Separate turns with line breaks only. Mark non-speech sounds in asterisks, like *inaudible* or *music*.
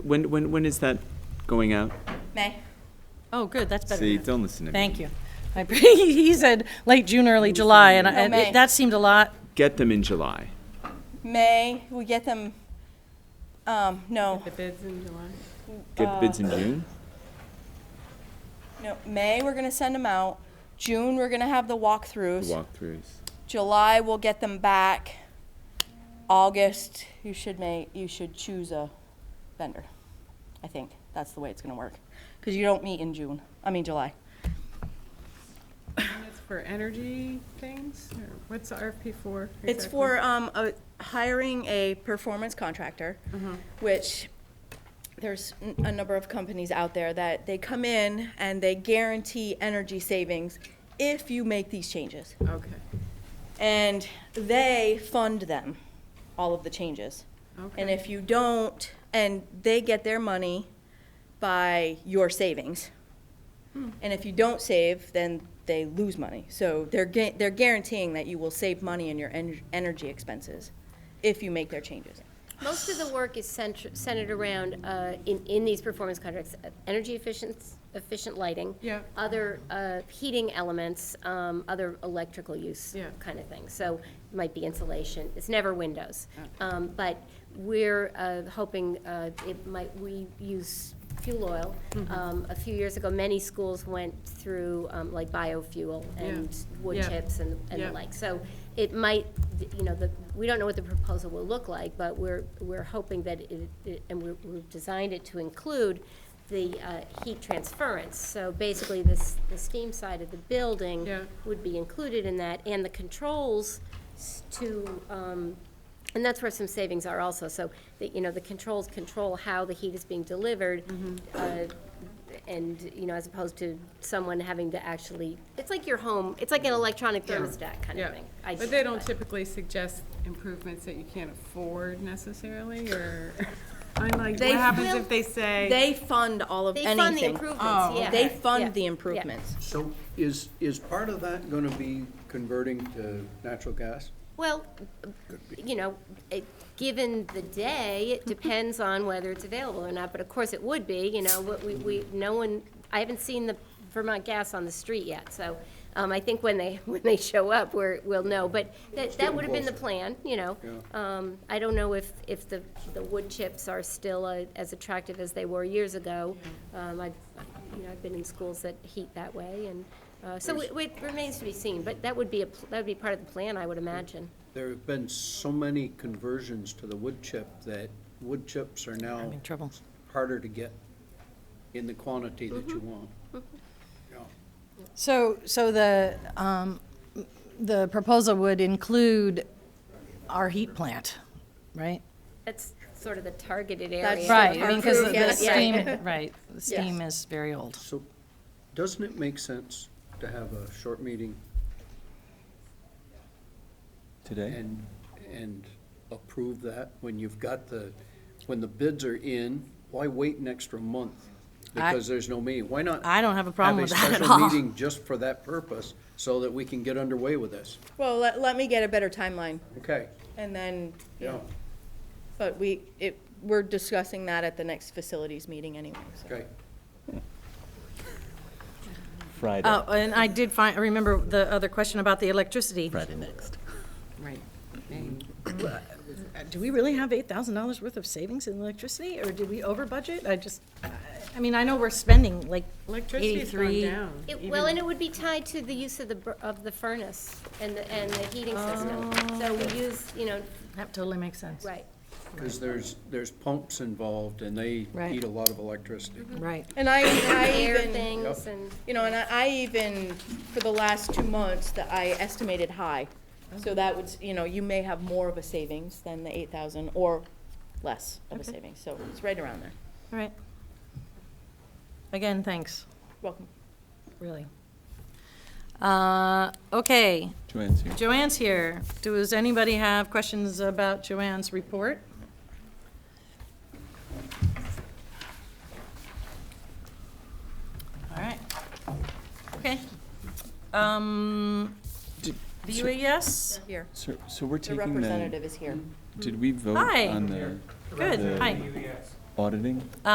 When, when, when is that going out?
May.
Oh, good, that's better.
See,
than-
don't listen to me.
Thank you. *laughs* I, he said late June, early July, and I- and
May.
it- that seemed a lot.
Get them in July.
May, we get them, um, no,
The bids in July.
Get the bids in June?
no, May, we're gonna send them out. June, we're gonna have the
The
walkthroughs.
walkthroughs.
July, we'll get them back. August, you should make, you should choose a vendor. I think that's the way it's gonna work, because you don't meet in June, I mean, July.
And It's for energy things, or what's the RFP for?
It's
exactly?
for um, a- hiring a performance contractor, which there's n- a number of companies out there that they come in and they guarantee energy savings if you make these changes.
Okay,
And they fund them, all of the changes. And
okay,
if you don't, and they get their money by your savings.
Hmm.
And if you don't save, then they lose money. So they're, gu- they're guaranteeing that you will save money in your en- energy expenses if you make their changes.
Most of the work is centr- centered around, uh, in, in these performance contracts, uh, energy efficient, efficient lighting.
Yeah.
Other uh, heating elements, um, other electrical use.
Yeah.
Kind of thing. So it might be insulation. It's never windows. Um, But we're uh, hoping uh, it might, we use fuel oil.
Mm-hmm.
Um, A few years ago, many schools went through um, like biofuel and wood
Yeah.
chips and and
Yeah.
the like. So it might, you know, the, we don't know what the proposal will look like, but we're, we're hoping that it- it, and we're- we've designed it to include the uh, heat transference. So basically, this, the steam side of the building
Yeah.
would be included in that, and the controls s- to, um, and that's where some savings are also. So, the- you know, the controls control how the heat is being delivered,
Mm-hmm.
uh, and, you know, as opposed to someone having to actually, it's like your home, it's like an electronic thermostat kind
yeah.
of thing. I
But they don't typically suggest improvements that you can't afford
*laughs*
necessarily, or, I'm like, what
They
happens
will-
if they say?
They fund all of
They
anything.
fund the
Oh,
improvements, yeah.
They
Yeah.
fund the
Yeah.
improvements.
So is, is part of that going to be converting to natural gas?
Well, you know, it, given the day, it depends on whether it's available or not, but of course it would be, you know, what we, we, no one, I haven't seen the Vermont gas on the street yet, so, um, I think when they, *laughs* when they show up, we're, we'll know, but that, that would have been the plan, you know? Um, I don't know if, if the, the wood chips are still uh, as attractive as they were years ago. Um, I, you know, I've been in schools that heat that way, and, uh, so it, it remains to be seen, but that would be a, pl- that would be part of the plan, I would imagine.
There have been so many conversions to the wood chip that wood chips are now
Having trouble.
harder to get in the quantity that you want. Yeah.
So, so the, um, the proposal would include our heat plant, right?
That's sort of the targeted
That's
area.
Right, I mean, because the- the
Yes.
steam, right, the steam is very old.
So doesn't it make sense to have a short meeting
Today?
and, and approve that when you've got the, when the bids are in? Why wait an extra month?
I-
Because there's no meeting. Why not?
I don't have a problem with that at
Have a special
all.
meeting just for that purpose, so that we can get underway with this.
Well, let, let me get a better timeline
Okay,
and then,
yeah,
but we, it, we're discussing that at the next facilities meeting anyway, so.
okay.
Friday,
Oh, and I did find, I remember the other question about the electricity.
Friday next. Mm-hmm.
Right. And, uh, Do we really have eight thousand dollars worth of savings in electricity, or did we over budget? I just, I- I mean, I know we're spending like
Electricity's gone
eighty-three.
down.
It- Well, and it would be tied to the use of the, bur- of the furnace and the, and the heating system. So we
Oh.
use, you know,
That totally makes sense.
right.
Because there's, there's pumps involved, and they
Right.
eat a lot of electricity.
Right.
And I, I
Air
even.
things and,
You know, and I, I even, for the last two months, that I estimated high. So that would, you know, you may have more of a savings than the eight thousand or less of a savings, so it's right around there.
All right. Again, thanks,
Welcome.
really. Uh, Okay,
Joanne's here.
Joanne's here. Does anybody have questions about Joanne's report? All right. Okay. Um,
Did-
VUAS?
Here,
So, so we're
the
taking the,
representative is here.
did we vote
Hi.
on the?
Good,
the-
hi.
auditing?